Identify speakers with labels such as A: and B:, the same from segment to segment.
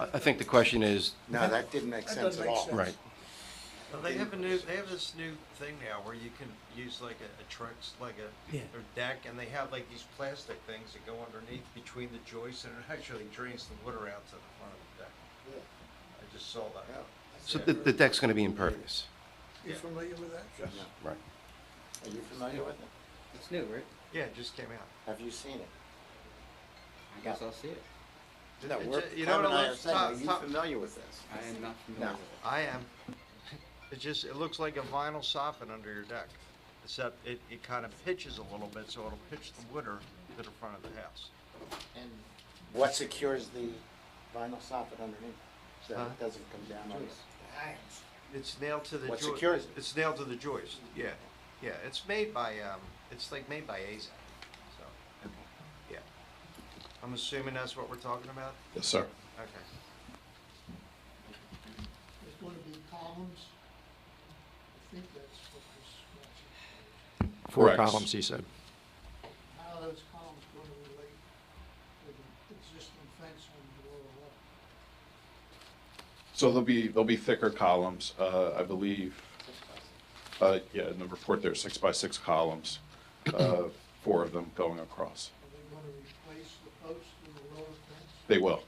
A: I I think the question is,
B: No, that didn't make
C: That
B: sense
C: doesn't
B: at
C: make
B: all.
C: sense.
A: right,
D: Well, they have a new, they have this new thing now where you can use like a, a trucks, like a,
E: Yeah.
D: or deck, and they have like these plastic things that go underneath between the joists, and it actually drains the water out to the front of the deck.
C: Yeah.
D: I just saw
B: Yeah.
D: that.
A: so the, the deck's gonna be impervious,
C: You familiar with that?
B: Yeah.
A: right?
B: Are you familiar with it?
E: It's new, right?
D: Yeah, it just came out.
B: Have you seen it?
E: I guess I'll see it.
B: No,
D: It
B: we're,
D: ju- you know
B: Clem
D: what
B: and I
D: it
B: are
D: looks-
B: saying, are
D: top-
B: you
D: top-
B: familiar with this?
E: I am not
B: No.
E: familiar with
D: I am. It just, it looks like a vinyl soffit under your deck, except it, it kind of pitches a little bit, so it'll pitch the water to the front of the house.
B: And what secures the vinyl soffit underneath, so
D: Huh?
B: it doesn't come down on us?
D: It's nailed to the.
B: What
D: joi-
B: secures it?
D: It's nailed to the joist, yeah, yeah, it's made by, um, it's like made by AZAC, so, yeah. I'm assuming that's what we're talking about?
F: Yes, sir.
D: Okay.
C: There's going to be columns. I think that's what this, wants
A: Four
F: Correct.
A: columns, he said.
C: to- how are those columns going to relate with the existing fence on the lower level?
F: So there'll be, there'll be thicker columns, uh, I believe. Uh, yeah, in the report there's six by six columns, uh, four of them going across.
C: Are they going to replace the posts in the lower fence?
F: They will.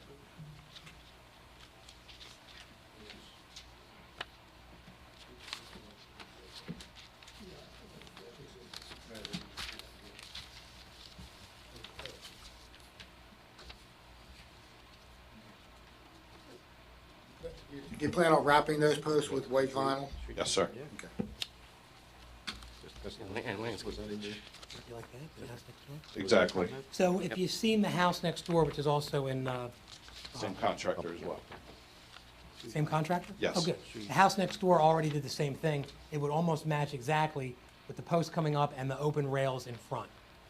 G: You plan on wrapping those posts with white vinyl?
F: Yes, sir.
A: And la- and landscape.
F: Exactly.
H: So if you've seen the house next door, which is also in, uh,
F: Same contractor as well.
H: same contractor?
F: Yes.
H: Oh, good. The house next door already did the same thing. It would almost match exactly with the post coming up and the open rails in front.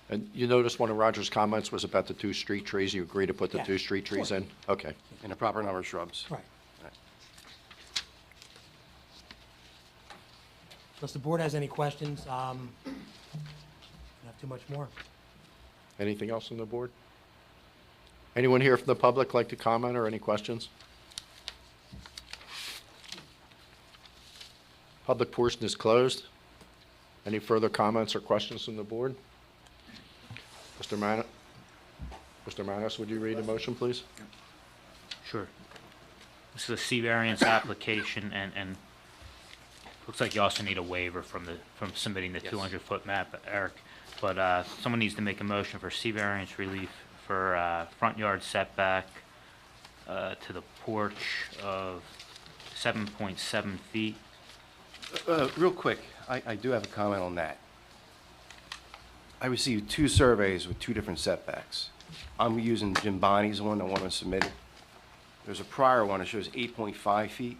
I: And you noticed one of Roger's comments was about the two street trees, you agree to put the
H: Yeah,
I: two street trees
H: sure.
I: in? Okay.
A: And a proper number of shrubs.
H: Right. Unless the board has any questions, um, not too much more.
I: Anything else on the board? Anyone here from the public like to comment or any questions? Public portion is closed. Any further comments or questions from the board? Mr. Man, Mr. Manos, would you read the motion, please?
J: Sure. This is a C variance application and, and looks like you also need a waiver from the, from submitting the two hundred foot map, Eric. But, uh, someone needs to make a motion for C variance relief for, uh, front yard setback, uh, to the porch of seven point seven feet.
A: Uh, Real quick, I, I do have a comment on that. I received two surveys with two different setbacks. I'm using Jim Bonney's one, the one I submitted. There's a prior one, that shows 8.5 feet.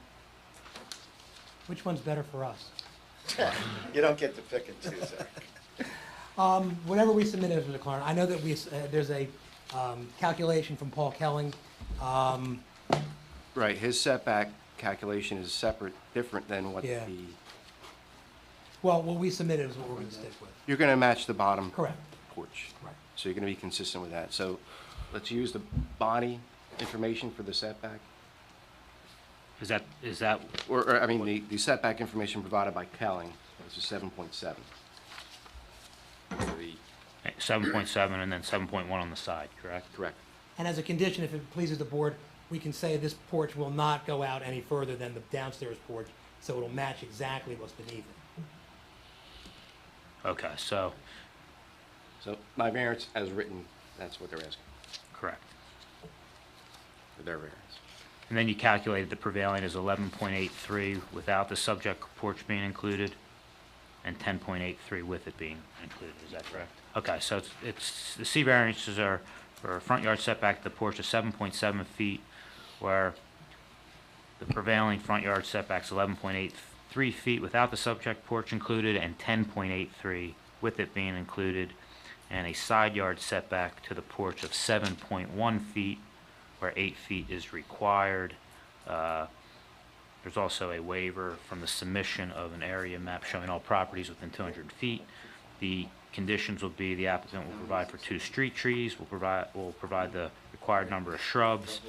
H: Which one's better for us?
B: You don't get to pick and choose, Eric.
H: Um, whatever we submitted to the client, I know that we, s- uh, there's a, um, calculation from Paul Kelling. Um,
A: Right, his setback calculation is separate, different than what the,
H: Yeah. well, what we submitted is what we're gonna stick with.
A: you're going to match the bottom.
H: Correct.
A: Porch.
H: Right.
A: So you're going to be consistent with that. So let's use the body information for the setback,
J: Is that, is that,
A: or, or, I mean, the- the setback information provided by Kelling, which is 7.7. For the-
J: seven point seven and then seven point one on the side, correct?
A: Correct.
H: And as a condition, if it pleases the board, we can say this porch will not go out any further than the downstairs porch, so it'll match exactly what's beneath it.
J: Okay, so,
A: So my variance as written, that's what they're asking,
J: correct.
A: for their variance.
J: And then you calculated the prevailing is eleven point eight three without the subject porch being included, and ten point eight three with it being included, is that correct? Okay, so it's, it's, the C variances are for a front yard setback, the porch is seven point seven feet, where the prevailing front yard setback's eleven point eight three feet without the subject porch included, and ten point eight three with it being included, and a side yard setback to the porch of seven point one feet, where eight feet is required. Uh, There's also a waiver from the submission of an area map showing all properties within 200 feet. The conditions will be the applicant will provide for two street trees, will provide, will provide the required number of shrubs,